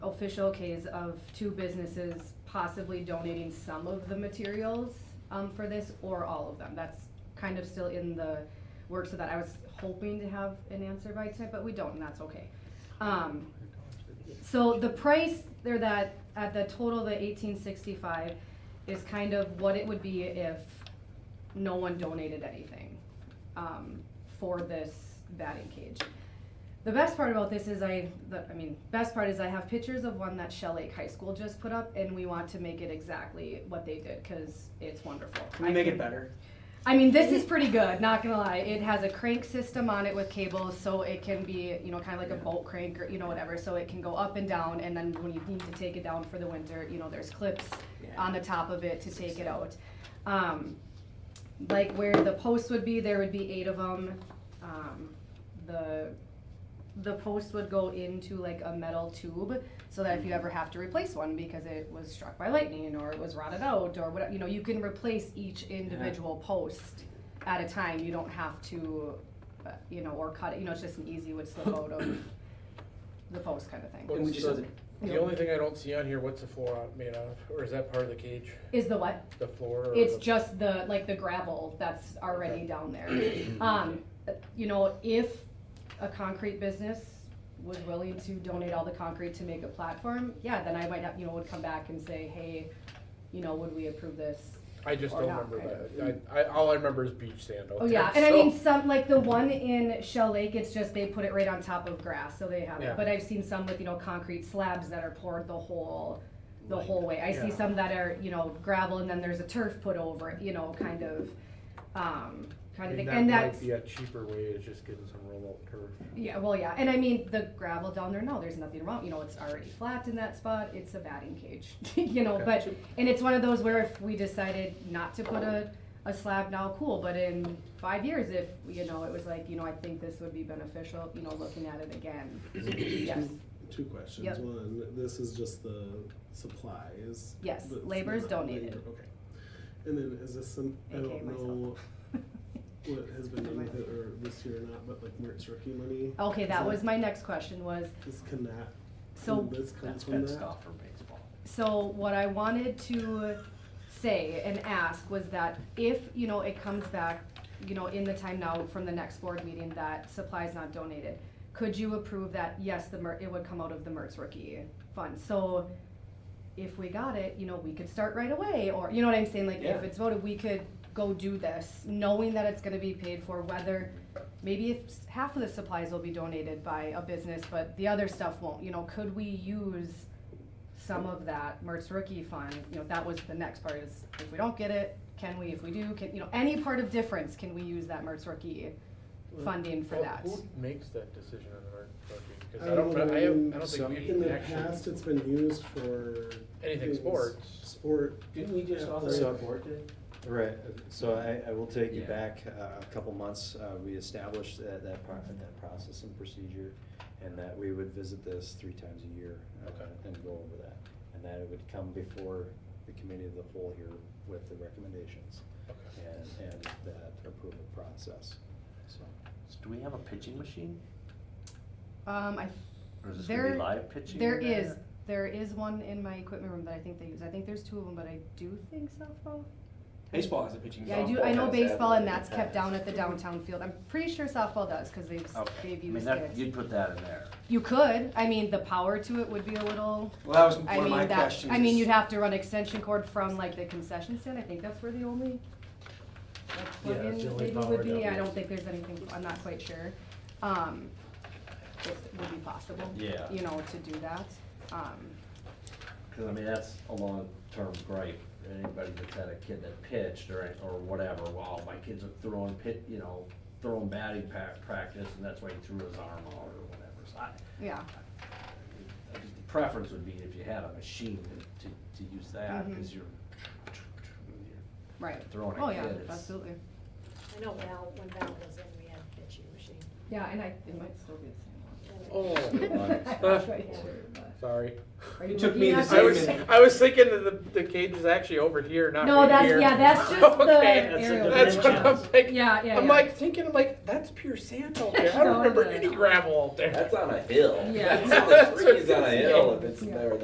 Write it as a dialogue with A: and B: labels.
A: official case of two businesses possibly donating some of the materials um, for this or all of them. That's kind of still in the works of that. I was hoping to have an answer by tonight, but we don't, and that's okay. Um, so the price there that, at the total, the eighteen sixty-five, is kind of what it would be if no one donated anything, um, for this batting cage. The best part about this is I, the, I mean, best part is I have pictures of one that Shell Lake High School just put up, and we want to make it exactly what they did, cause it's wonderful.
B: Can we
A: I
B: make
A: can-
B: it better?
A: I mean, this is pretty good, not gonna lie. It has a crank system on it with cables, so it can be, you know, kind of like a bolt crank or, you know, whatever. So it can go up and down, and then when you need to take it down for the winter, you know, there's clips on the top of it to take it out. Um, like where the posts would be, there would be eight of them. Um, the, the post would go into like a metal tube, so that if you ever have to replace one because it was struck by lightning or it was rotted out or whatever, you know, you can replace each individual post at a time, you don't have to, uh, you know, or cut it, you know, it's just an easy would slip out of the post kind of thing.
B: And we just have to-
C: The only thing I don't see on here, what's the floor out- made out of, or is that part of the cage,
A: Is the what?
C: the floor? or
A: It's
C: the-
A: just the, like, the gravel that's already
C: Okay.
A: down there. Um, you know, if a concrete business was willing to donate all the concrete to make a platform, yeah, then I might have, you know, would come back and say, hey, you know, would we approve this?
C: I just
A: or
C: don't
A: not,
C: remember
A: right?
C: that. I, I, all I remember is beach sand out
A: Oh,
C: there.
A: yeah, and I mean,
C: so-
A: some, like, the one in Shell Lake, it's just they put it right on top of grass, so they have
C: Yeah.
A: it. But I've seen some with, you know, concrete slabs that are poured the whole, the
D: Right.
A: whole way. I see
C: Yeah.
A: some that are, you know, gravel and then there's a turf put over it, you know, kind of, um,
C: I
A: kind of
C: mean,
A: thing.
C: that
A: And that's,
C: might be a cheaper way, is just getting some roll-up turf.
A: Yeah, well, yeah, and I mean, the gravel down there, no, there's nothing wrong, you know, it's already flat in that spot, it's a batting cage, you know, but, and it's one of those where if we decided not to put a, a slab now, cool, but in five years, if, you know, it was like, you know, I think this would be beneficial, you know, looking at it again, yes,
D: Two questions.
A: Yep.
D: One, this is just the supplies.
A: Yes,
D: but it's
A: labor is
D: not
A: donated.
D: labor, Okay. And then is this some, I
A: AKA
D: don't know
A: myself.
D: what has been done with it or this year or not, but like Mertz rookie money,
A: Okay, that was my next question was,
D: this can that,
A: so
D: can this come
E: That's
D: from
E: fenced
D: that?
E: off for baseball.
A: So what I wanted to say and ask was that if, you know, it comes back, you know, in the time now from the next board meeting that supplies not donated, could you approve that, yes, the Mer, it would come out of the Mertz rookie fund? So if we got it, you know, we could start right away, or, you know what I'm saying, like, if
B: Yeah.
A: it's voted, we could go do this, knowing that it's gonna be paid for, whether, maybe if s- half of the supplies will be donated by a business, but the other stuff won't, you know, could we use some of that Mertz rookie fund, you know, that was the next part is, if we don't get it, can we, if we do, can, you know, any part of difference, can we use that Mertz rookie funding for
C: Well,
A: that?
C: Who makes that decision on the market? Because
D: I
C: I don't,
D: don't
C: I have, I
D: know.
C: don't think we
D: In the
C: actually,
D: past, it's been used for.
C: anything
D: things-
C: sports.
D: Sport.
F: Didn't we just
D: Yeah,
F: authorize the
D: like-
F: board to?
G: Right, so I, I will take you
E: Yeah.
G: back uh, a couple months, uh, we established that, that pro- that process and procedure, and that we would visit this three times a year. uh,
C: Okay.
G: And go over that, and that it would come before the committee of the whole here with the recommendations
C: Okay.
G: and, and that approval process, so.
E: So do we have a pitching machine?
A: Um, I,
E: Or is this gonna
A: there,
E: be live pitching?
A: there
E: in
A: is, there is one in my equipment room that I think they use, I think there's two of them, but I do think softball?
B: Baseball has a pitching.
A: Yeah, I do,
B: softball
A: I know
B: has that.
A: baseball and that's kept down at the downtown field, I'm pretty sure softball does, cause they've,
E: Okay, I
A: they've
E: mean,
A: used
E: that,
A: it.
E: you'd put that in there.
A: You could, I mean, the power to it would be a little.
F: Well, that was
A: I
F: one of my
A: mean, that,
F: questions.
A: I mean, you'd have to run extension cord from like the concession stand, I think that's where the only. like,
C: Yeah,
A: plug-in
C: it's the only
A: maybe
C: power
A: would be,
C: down
A: I
C: there.
A: don't think there's anything, I'm not quite sure, um, it would be possible.
E: Yeah.
A: You know, to do that, um,
E: Cause I mean, that's a long-term gripe, anybody that's had a kid that pitched or, or whatever, wow, my kid's throwing pit, you know, throwing batting pa- practice, and that's why he threw his arm out or whatever, so I,
A: yeah,
E: I just- the preference would be if you had a machine to, to, to use that,
A: Mhm.
E: cause you're,
A: right.
E: Throwing a
A: Oh, yeah,
E: kid is-
A: absolutely,
H: I know Val, when Val was in, we had a pitching machine.
A: yeah, and I, it might still be the same one.
H: And
C: Oh,
G: Nice.
A: I'm not quite sure, but-
C: sorry.
A: Are you
E: It took
A: looking
E: me the
A: at
C: I
E: same
A: this?
C: was, I was thinking that the, the cage is actually over here, not
A: No,
C: right
A: that's,
C: here.
A: yeah, that's just the
C: Okay,
E: that's a
A: aerial.
C: That's what I'm thinking.
A: Yeah, yeah,
C: I'm
A: yeah.
C: like thinking, I'm like, that's pure sand out there. I
A: No,
C: don't remember
A: no,
C: any
A: no.
C: gravel out there.
G: That's on a hill.
A: Yeah.
G: That's on a, it's on a hill if it's
A: Yeah.
G: there.